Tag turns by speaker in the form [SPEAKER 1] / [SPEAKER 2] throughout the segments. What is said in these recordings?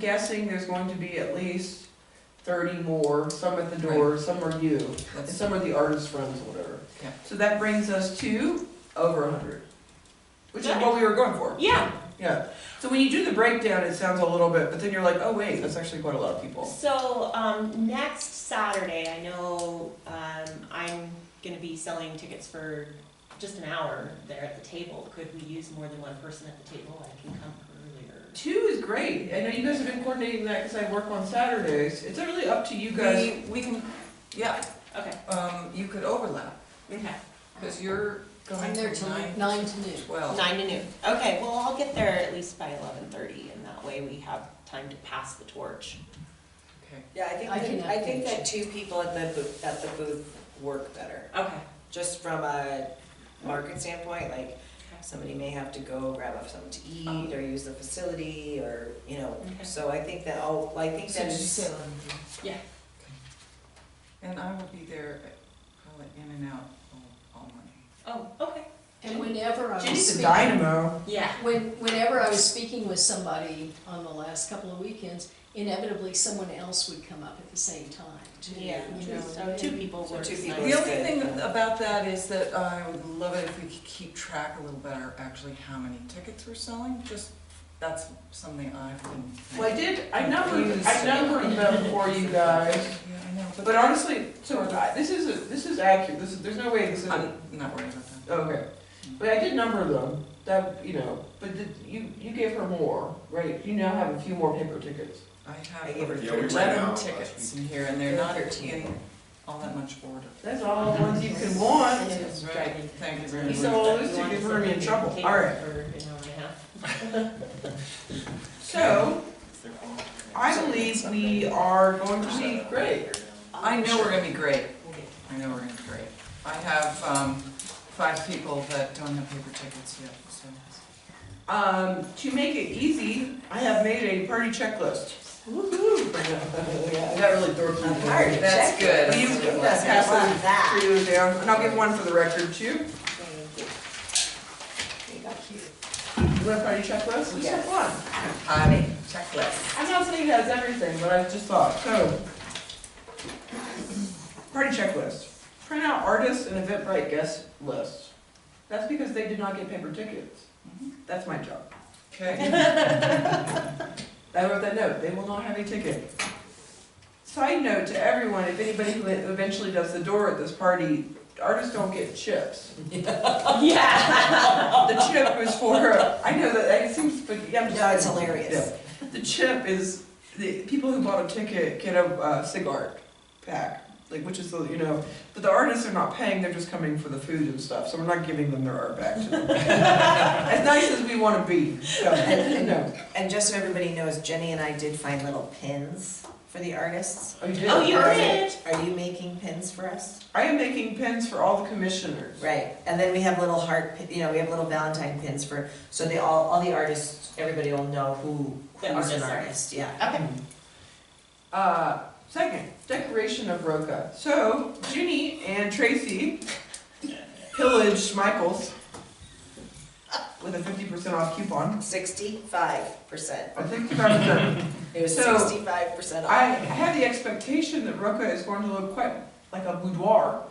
[SPEAKER 1] guessing there's going to be at least thirty more, some at the door, some are you, and
[SPEAKER 2] That's-
[SPEAKER 1] some are the artist friends, or whatever.
[SPEAKER 2] Yeah.
[SPEAKER 1] So that brings us to over a hundred, which is
[SPEAKER 3] Right.
[SPEAKER 1] what we were going for.
[SPEAKER 3] Yeah,
[SPEAKER 1] Yeah, so when you do the breakdown, it sounds a little bit, but then you're like, oh wait, that's actually quite a lot of people.
[SPEAKER 3] so, um, next Saturday, I know, um, I'm gonna be selling tickets for just an hour there at the table. Could we use more than one person at the table? I can come earlier.
[SPEAKER 1] Two is great, I know you guys have been coordinating that, cause I work on Saturdays, it's really up to you guys.
[SPEAKER 2] We, we can, yeah,
[SPEAKER 3] Okay,
[SPEAKER 2] um, you could overlap,
[SPEAKER 3] okay.
[SPEAKER 2] cause you're going
[SPEAKER 4] I'm there
[SPEAKER 2] from
[SPEAKER 4] till
[SPEAKER 2] nine
[SPEAKER 4] nine to noon.
[SPEAKER 2] to twelve.
[SPEAKER 3] Nine to noon. Okay, well, I'll get there at least by eleven thirty and that way we have time to pass the torch.
[SPEAKER 2] Okay,
[SPEAKER 5] Yeah,
[SPEAKER 4] I
[SPEAKER 5] I
[SPEAKER 4] can
[SPEAKER 5] think, that- I think
[SPEAKER 4] update
[SPEAKER 5] that two people at the booth, at the booth work better,
[SPEAKER 3] Okay.
[SPEAKER 5] just from a market standpoint, like, somebody may have to go grab up something to eat, or use the facility, or, you know,
[SPEAKER 3] Okay.
[SPEAKER 5] so I think that, oh, I think
[SPEAKER 2] so
[SPEAKER 5] that
[SPEAKER 2] did you say
[SPEAKER 5] is,
[SPEAKER 2] eleven?
[SPEAKER 3] Yeah.
[SPEAKER 2] And I will be there, uh, probably in and out all, all morning.
[SPEAKER 3] Oh, okay.
[SPEAKER 4] And whenever I was
[SPEAKER 1] She's a
[SPEAKER 4] speaking,
[SPEAKER 1] dynamo.
[SPEAKER 3] Yeah.
[SPEAKER 4] when, whenever I was speaking with somebody on the last couple of weekends, inevitably someone else would come up at the same time too.
[SPEAKER 3] Yeah,
[SPEAKER 4] you
[SPEAKER 3] true.
[SPEAKER 4] know.
[SPEAKER 3] so two people
[SPEAKER 5] So
[SPEAKER 3] works
[SPEAKER 5] two
[SPEAKER 2] The
[SPEAKER 5] people.
[SPEAKER 3] nice.
[SPEAKER 5] Yeah.
[SPEAKER 2] only
[SPEAKER 5] good.
[SPEAKER 2] thing about that is that I would love it if we could keep track a little better, actually, how many tickets we're selling, just, that's something I've been.
[SPEAKER 1] Well, I did, I numbered, I
[SPEAKER 2] Confused.
[SPEAKER 1] numbered them for you guys,
[SPEAKER 2] Yeah, I know,
[SPEAKER 1] but honestly, so I- this is, a- this is accurate, this is, there's no way this isn't,
[SPEAKER 2] I'm not worried about that.
[SPEAKER 1] okay. But I did number them, that, you know, but did, you, you gave her more, right? You now have a few more paper tickets.
[SPEAKER 2] I
[SPEAKER 5] I
[SPEAKER 2] have
[SPEAKER 5] gave
[SPEAKER 2] over
[SPEAKER 5] her
[SPEAKER 6] Yeah, we ran out
[SPEAKER 2] eleven
[SPEAKER 6] last
[SPEAKER 2] tickets in here, and they're not in
[SPEAKER 5] Thirteen.
[SPEAKER 2] all that much order.
[SPEAKER 1] That's all the ones you can want.
[SPEAKER 2] Right, thank you very
[SPEAKER 1] You
[SPEAKER 2] much.
[SPEAKER 1] sold all those tickets, we're gonna be in trouble, all right.
[SPEAKER 3] For an hour and a half.
[SPEAKER 1] So, I believe we are going to be great.
[SPEAKER 2] I know we're gonna be great, I know we're gonna be great. I have, um, five people that don't have paper tickets yet, so.
[SPEAKER 1] Um, to make it easy, I have made a party checklist. Woo-hoo. I got really dorky.
[SPEAKER 5] I'm tired.
[SPEAKER 2] That's good.
[SPEAKER 1] Will you pass those for you down, and I'll give one for the record too.
[SPEAKER 5] They got cute.
[SPEAKER 1] You want a party checklist? Let's have one.
[SPEAKER 2] Party checklist.
[SPEAKER 1] I'm not saying it has everything, but I just thought, so. Party checklist. Print out artists and Eventbrite guest lists. That's because they did not get paper tickets. That's my job.
[SPEAKER 2] Okay,
[SPEAKER 1] I wrote that note, they will not have a ticket. Side note to everyone, if anybody who eventually does the door at this party, artists don't get chips.
[SPEAKER 3] Oh, Yeah.
[SPEAKER 1] The chip is for, I know that, it seems, but yeah, I'm just.
[SPEAKER 5] No, it's hilarious.
[SPEAKER 1] Yeah. The chip is, the people who bought a ticket get a uh, cigar pack, like, which is, the you know, but the artists are not paying, they're just coming for the food and stuff, so we're not giving them their art back to them. As nice as we wanna be, so, no.
[SPEAKER 5] And just so everybody knows, Jenny and I did find little pins for the artists.
[SPEAKER 1] Oh, you did?
[SPEAKER 3] Oh, you
[SPEAKER 5] Are-
[SPEAKER 3] did?
[SPEAKER 5] Are you making pins for us?
[SPEAKER 1] I am making pins for all the commissioners.
[SPEAKER 5] Right, and then we have little heart, pi- you know, we have little Valentine pins for, so they all, all the artists, everybody will know who,
[SPEAKER 3] The
[SPEAKER 5] who's
[SPEAKER 3] artists
[SPEAKER 5] an
[SPEAKER 3] are.
[SPEAKER 5] artist, yeah.
[SPEAKER 3] Okay.
[SPEAKER 1] Uh, second, decoration of Roca. So Ginny and Tracy pillaged Michael's with a fifty percent off coupon.
[SPEAKER 5] Sixty-five percent,
[SPEAKER 1] I think that's
[SPEAKER 5] it was
[SPEAKER 1] So,
[SPEAKER 5] sixty-five percent
[SPEAKER 1] I
[SPEAKER 5] off.
[SPEAKER 1] have the expectation that Roca is going to look quite like a boudoir,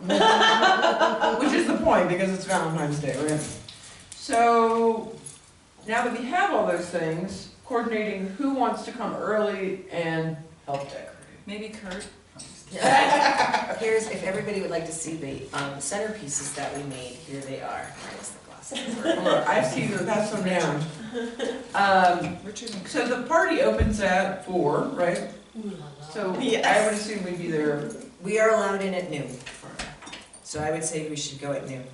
[SPEAKER 1] which is the point because it's Valentine's Day, right? So now that we have all those things, coordinating who wants to come early and help decorate.
[SPEAKER 2] maybe Kurt?
[SPEAKER 5] Here's, if everybody would like to see the, um, centerpieces that we made, here they are, minus the glasses.
[SPEAKER 1] Or I see them, pass them down. Um,
[SPEAKER 2] Richard and
[SPEAKER 1] so the party opens at four, right?
[SPEAKER 4] Ooh la la.
[SPEAKER 1] So I
[SPEAKER 5] Yes.
[SPEAKER 1] would assume we'd be there.
[SPEAKER 5] We are allowed in at noon, so I would say we should go at noon.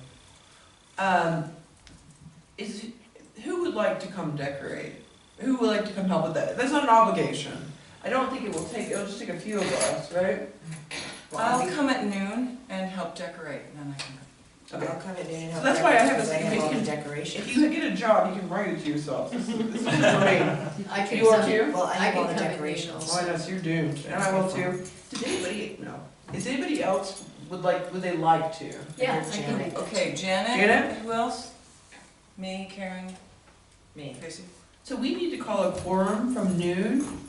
[SPEAKER 1] Um, is, who would like to come decorate? Who would like to come help with that? That's not an obligation. I don't think it will take, it'll just take a few of us, right?
[SPEAKER 2] I'll come at noon and help decorate, and then I can
[SPEAKER 5] I'll come at noon and help.
[SPEAKER 1] So that's why I have a-
[SPEAKER 5] decorate, 'cause I have all the
[SPEAKER 1] If
[SPEAKER 5] decorations.
[SPEAKER 1] you get a job, you can write it to yourself. This is, this is great.
[SPEAKER 4] I could
[SPEAKER 1] You are
[SPEAKER 4] come-
[SPEAKER 1] too?
[SPEAKER 5] Well, I
[SPEAKER 4] I
[SPEAKER 5] have all
[SPEAKER 4] could come
[SPEAKER 5] the
[SPEAKER 4] at noon
[SPEAKER 5] decorations.
[SPEAKER 1] Oh, I
[SPEAKER 4] also.
[SPEAKER 1] know, so you're doomed, and I will too. Does anybody, no, is anybody else would like, would they like to?
[SPEAKER 4] Yeah, I
[SPEAKER 5] Janet.
[SPEAKER 4] can,
[SPEAKER 2] go. Okay, Janet?
[SPEAKER 1] Janet?
[SPEAKER 2] Who else? Me, Karen,
[SPEAKER 5] Me.
[SPEAKER 2] Tracy?
[SPEAKER 1] So we need to call a quorum from noon